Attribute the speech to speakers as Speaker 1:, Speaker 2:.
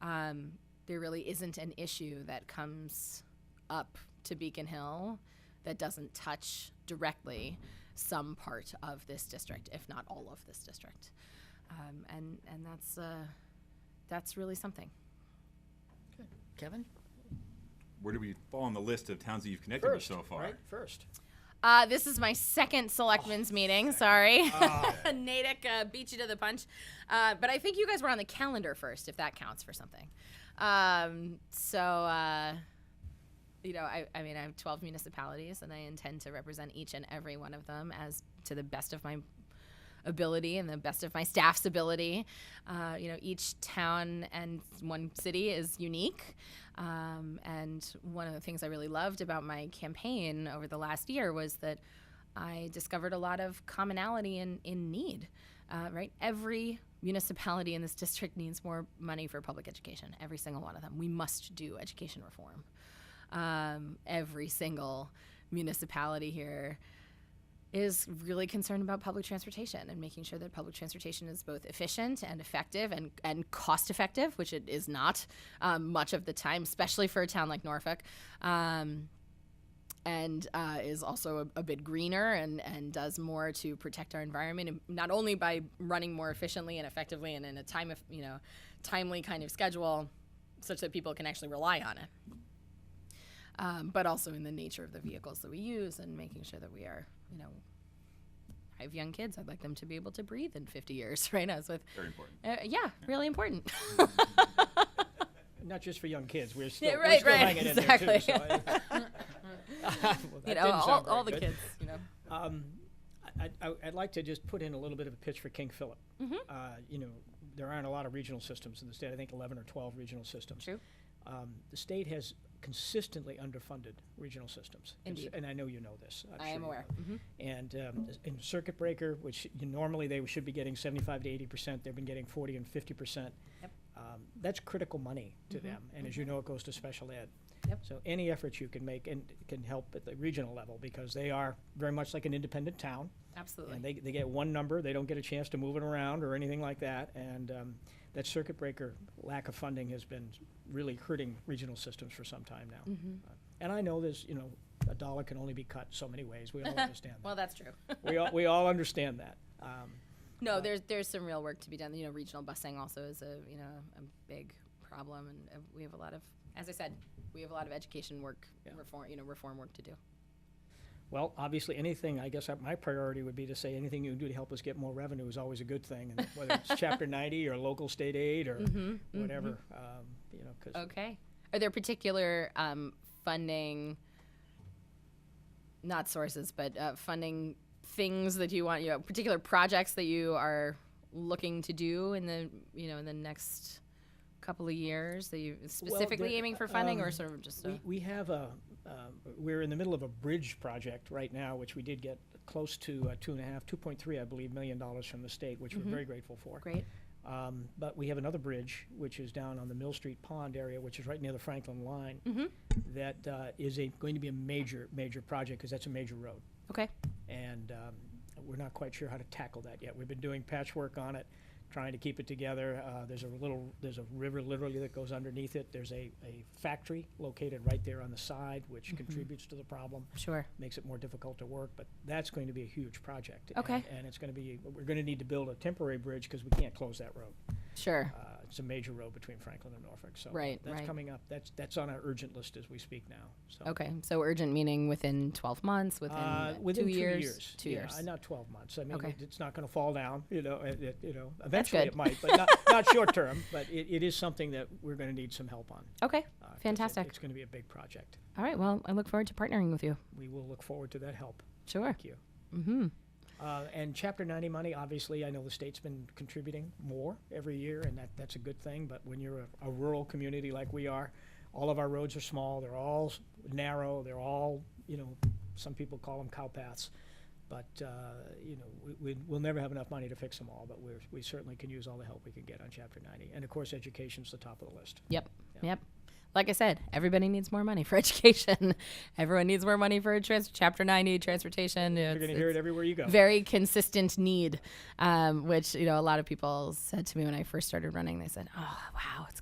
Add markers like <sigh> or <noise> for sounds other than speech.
Speaker 1: um, there really isn't an issue that comes up to Beacon Hill that doesn't touch directly some part of this district, if not all of this district. Um, and and that's uh, that's really something.
Speaker 2: Kevin?
Speaker 3: Where do we fall on the list of towns that you've connected with so far?
Speaker 2: Right, first.
Speaker 1: Uh, this is my second selectmen's meeting. Sorry. <laughs> Natick uh, beat you to the punch. Uh, but I think you guys were on the calendar first, if that counts for something. Um, so, uh, you know, I, I mean, I have 12 municipalities and I intend to represent each and every one of them as to the best of my ability and the best of my staff's ability. Uh, you know, each town and one city is unique. Um, and one of the things I really loved about my campaign over the last year was that I discovered a lot of commonality in, in need, uh, right? Every municipality in this district needs more money for public education, every single one of them. We must do education reform. Um, every single municipality here is really concerned about public transportation and making sure that public transportation is both efficient and effective and, and cost effective, which it is not um, much of the time, especially for a town like Norfolk. Um, and uh, is also a, a bit greener and, and does more to protect our environment, and not only by running more efficiently and effectively and in a time of, you know, timely kind of schedule such that people can actually rely on it um, but also in the nature of the vehicles that we use and making sure that we are, you know, I have young kids. I'd like them to be able to breathe in 50 years, <laughs> right? As with,
Speaker 3: Very important.
Speaker 1: uh, yeah, really important.
Speaker 2: Not just for young kids, we're still, we're
Speaker 1: right,
Speaker 2: still
Speaker 1: right,
Speaker 2: hanging in there
Speaker 1: <laughs>
Speaker 2: too.
Speaker 1: exactly.
Speaker 2: so I- <laughs> Well,
Speaker 1: <laughs> you
Speaker 2: that
Speaker 1: know,
Speaker 2: didn't
Speaker 1: all,
Speaker 2: sound
Speaker 1: all the
Speaker 2: very good.
Speaker 1: kids, you
Speaker 2: <laughs>
Speaker 1: know.
Speaker 2: Um, I, I, I'd like to just put in a little bit of a pitch for King Philip.
Speaker 1: Mm-hmm.
Speaker 2: Uh, you know, there aren't a lot of regional systems in the state, I think eleven or twelve regional systems.
Speaker 1: True.
Speaker 2: Um, the state has consistently underfunded regional systems. And s-
Speaker 1: Indeed.
Speaker 2: And I know you know this. I'm
Speaker 1: I
Speaker 2: sure
Speaker 1: am
Speaker 2: you
Speaker 1: aware. Mm-hmm.
Speaker 2: know. And, um, s- in circuit breaker, which you- normally they should be getting seventy-five to eighty percent, they've been getting forty and fifty percent.
Speaker 1: Yep. Mm-hmm.
Speaker 2: Um, that's critical money to them, and as you know, it goes to special ed.
Speaker 1: Yep.
Speaker 2: So any effort you can make and can help at the regional level, because they are very much like an independent town.
Speaker 1: Absolutely.
Speaker 2: And they, they get one number, they don't get a chance to move it around or anything like that. And um, that circuit breaker lack of funding has been really hurting regional systems for some time now.
Speaker 1: Mm-hmm.
Speaker 2: Uh, And I know there's, you know, a dollar can only be cut so many ways.
Speaker 1: <laughs>
Speaker 2: We all understand
Speaker 1: well,
Speaker 2: that.
Speaker 1: that's
Speaker 2: <laughs>
Speaker 1: true. <laughs>
Speaker 2: We all, we all understand that. Um,
Speaker 1: No, there's there's some real work to be done. You know, regional busing also is a you know a big problem, and uh, we have a lot of, as I said, we have a lot of education work
Speaker 2: Yeah.
Speaker 1: reform, you know, reform work to do.
Speaker 2: Well, obviously, anything, I guess uh, my priority would be to say anything you can do to help us get more revenue is always a good thing. and Whether it's chapter ninety or local state aid or whatever, um, you know, because
Speaker 1: Okay. Are there particular um, funding, not sources, but uh, funding things that you want, you know, particular projects that you are looking to do in the, you know, in the next couple of years that you specifically
Speaker 2: there-
Speaker 1: aiming for funding or
Speaker 2: um,
Speaker 1: sort of just
Speaker 2: we,
Speaker 1: a,
Speaker 2: we have a, um, we're in the middle of a bridge project right now, which we did get close to uh, two and a half, two point three, I believe, million dollars from the state, which we're very grateful for.
Speaker 1: great?
Speaker 2: Um, but we have another bridge, which is down on the Mill Street Pond area, which is right near the Franklin line. That uh, is a, going to be a major, major project, because that's a major road.
Speaker 1: Okay.
Speaker 2: and um, we're not quite sure how to tackle that yet. We've been doing patchwork on it, trying to keep it together. Uh, there's a little, there's a river literally that goes underneath it. There's a, a factory located right there on the side, which contributes to the problem,
Speaker 1: Sure.
Speaker 2: makes it more difficult to work. But that's going to be a huge project.
Speaker 1: Okay.
Speaker 2: And, and it's going to be, we're going to need to build a temporary bridge because we can't close that road.
Speaker 1: Sure.
Speaker 2: Uh, it's a major road between Franklin and Norfolk. So
Speaker 1: Right,
Speaker 2: that's
Speaker 1: right.
Speaker 2: coming up. That's that's on our urgent list as we speak now. So.
Speaker 1: Okay. So urgent meaning within 12 months, within,
Speaker 2: Uh,
Speaker 1: uh,
Speaker 2: within
Speaker 1: two,
Speaker 2: two
Speaker 1: years, Two
Speaker 2: Yeah,
Speaker 1: years.
Speaker 2: uh, Not 12 months. I mean,
Speaker 1: Okay.
Speaker 2: it- it's not going to fall down, you know, it- it- you know, eventually
Speaker 1: good.
Speaker 2: it might,
Speaker 1: <laughs>
Speaker 2: but not, not short term. But it, it is something that we're going to need some help on.
Speaker 1: Okay.
Speaker 2: uh, 'cause it-
Speaker 1: Fantastic.
Speaker 2: It's going to be a big project.
Speaker 1: All right. Well, I look forward to partnering with you.
Speaker 2: We will look forward to that help.
Speaker 1: Sure.
Speaker 2: Thank you. Mm-hmm. Uh, and Chapter 90 money, obviously, I know the state's been contributing more every year, and that, that's a good thing. But when you're a, a rural community like we are, all of our roads are small, they're all s- narrow, they're all, you know, some people call them cow paths. But, uh, you know, we, we, we'll never have enough money to fix them all, but we're, we certainly can use all the help we can get on Chapter 90. And of course, education's the top of the list.
Speaker 1: Yep. Yep. Like I said, everybody needs more money for <laughs> education. Everyone needs more money for trans- Chapter 90 transportation.
Speaker 2: You're
Speaker 1: It's,
Speaker 2: going to hear it
Speaker 1: it's
Speaker 2: everywhere you go.
Speaker 1: very consistent need, um, which you know a lot of people said to me when I first started running. They said, "Oh, wow, it's